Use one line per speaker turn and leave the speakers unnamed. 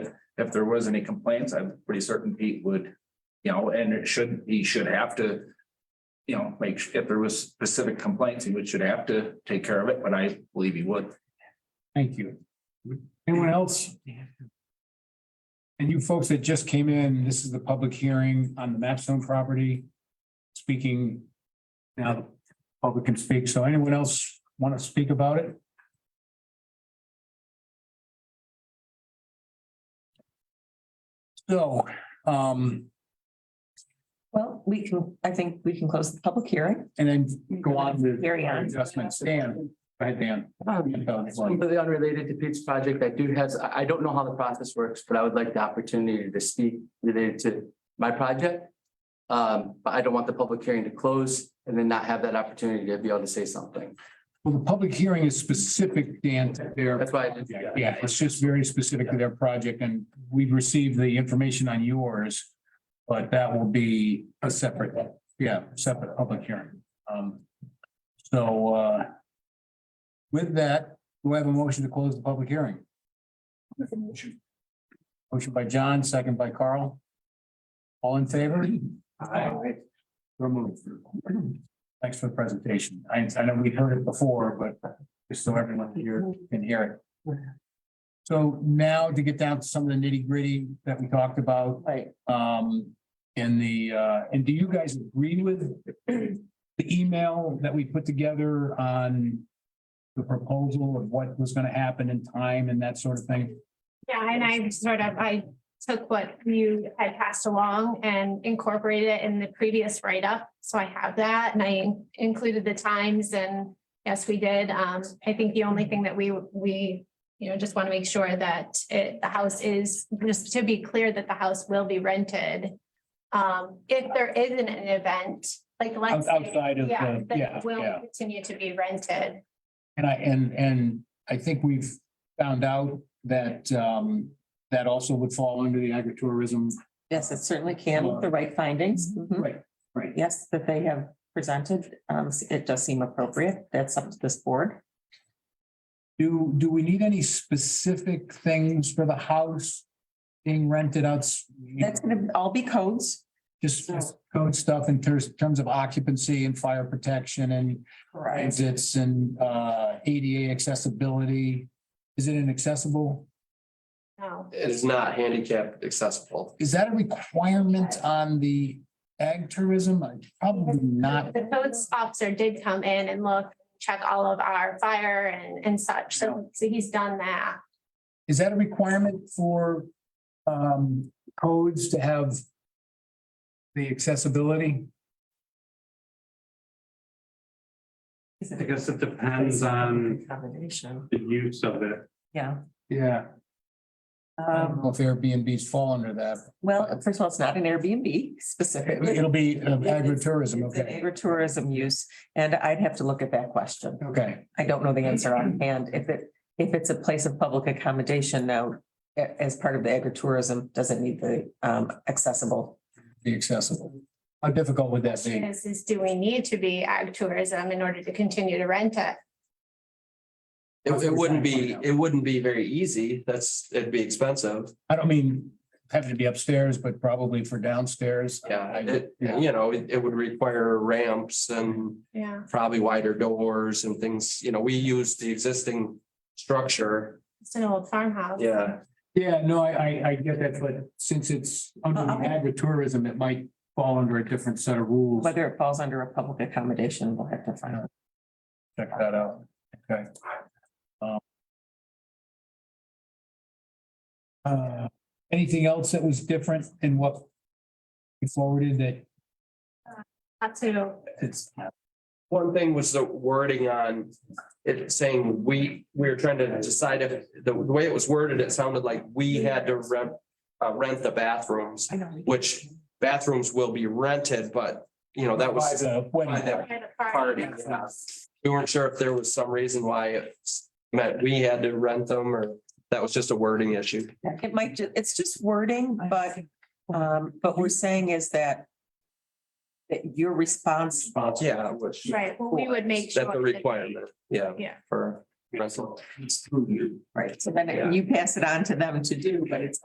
if there was any complaints, I'm pretty certain Pete would, you know, and it should, he should have to. You know, make, su- if there was specific complaints, he would, should have to take care of it, but I believe he would.
Thank you. Anyone else? And you folks that just came in, this is the public hearing on the Mapstone property. Speaking. Now, the public can speak. So anyone else want to speak about it? So, um,
Well, we can, I think we can close the public hearing.
and then go on with
Carry on.
adjustments. Dan, go ahead, Dan.
Um, Completely unrelated to Pete's project, I do has, I, I don't know how the process works, but I would like the opportunity to speak related to my project. Um, but I don't want the public hearing to close and then not have that opportunity to be able to say something.
Well, the public hearing is specific, Dan, to their
That's why I did.
Yeah, yeah, it's just very specific to their project and we've received the information on yours. But that will be a separate, yeah, separate public hearing. Um, so, uh. With that, we have a motion to close the public hearing. Motion by John, second by Carl. All in favor? Aye. Removed. Thanks for the presentation. I, I know we've heard it before, but just so everyone here can hear it. So now to get down to some of the nitty gritty that we talked about,
Right.
um, in the, uh, and do you guys agree with the email that we put together on the proposal of what was gonna happen in time and that sort of thing?
Yeah, and I sort of, I took what you had passed along and incorporated it in the previous write-up. So I have that and I included the times and yes, we did. Um, I think the only thing that we, we, you know, just want to make sure that it, the house is, just to be clear that the house will be rented. Um, if there isn't an event, like let's.
Out-
say-
Outside of
Yeah,
the,
then
yeah,
it will
yeah.
continue to be rented.
And I, and, and I think we've found out that, um, that also would fall under the agritourism.
Yes, it certainly can, with the right findings. Mhm.
Mm-hmm. Right, right.
Yes, that they have presented, um, it does seem appropriate. That's up to this board.
Do, do we need any specific things for the house being rented out?
That's gonna all be codes.
Just just code stuff in terms, terms of occupancy and fire protection and exits and, uh, ADA accessibility. Is it inaccessible?
No.
It is not handicapped accessible.
Is that a requirement on the ag tourism? Probably not.
The codes officer did come in and look, check all of our fire and, and such, so, so he's done that.
Is that a requirement for, um, codes to have the accessibility?
I guess it depends on
Combination,
the use of it.
yeah.
Yeah. I don't
Um,
know if Airbnb's fall under that.
well, first of all, it's not an Airbnb specifically.
It'll be uh, agritourism,
It's an
okay,
Agritourism use, and I'd have to look at that question.
okay.
I don't know the answer on hand. If it, if it's a place of public accommodation now, a- as part of the agritourism, does it need the um accessible?
Be accessible. How difficult would that be?
This is, do we need to be ag tourism in order to continue to rent it?
It, it wouldn't be, it wouldn't be very easy. That's, it'd be expensive.
I don't mean having to be upstairs, but probably for downstairs.
Yeah,
I-
it,
yeah.
you know, it, it would require ramps and
Yeah.
probably wider doors and things, you know, we use the existing structure.
It's an old farmhouse.
Yeah.
Yeah, no, I, I, I get that, but since it's under the agritourism, it might fall under a different set of rules.
Whether it falls under a public accommodation, we'll have to find out.
Check that out, okay. Um, uh, Anything else that was different in what you forwarded that
Not to,
it's,
One thing was the wording on it saying we, we were trying to decide if, the way it was worded, it sounded like we had to rent, uh, rent the bathrooms.
I know.
Which bathrooms will be rented, but, you know, that was.
By the wedding.
by that
we had a
Party,
party.
yeah. We weren't sure if there was some reason why it meant we had to rent them or that was just a wording issue.
It might, ju- it's just wording, but um, but we're saying is that that your response,
Yeah, which,
Right, well, we would make sure.
that's a
that-
requirement, yeah.
Yeah.
For rental.
right, so then you pass it on to them to do, but it's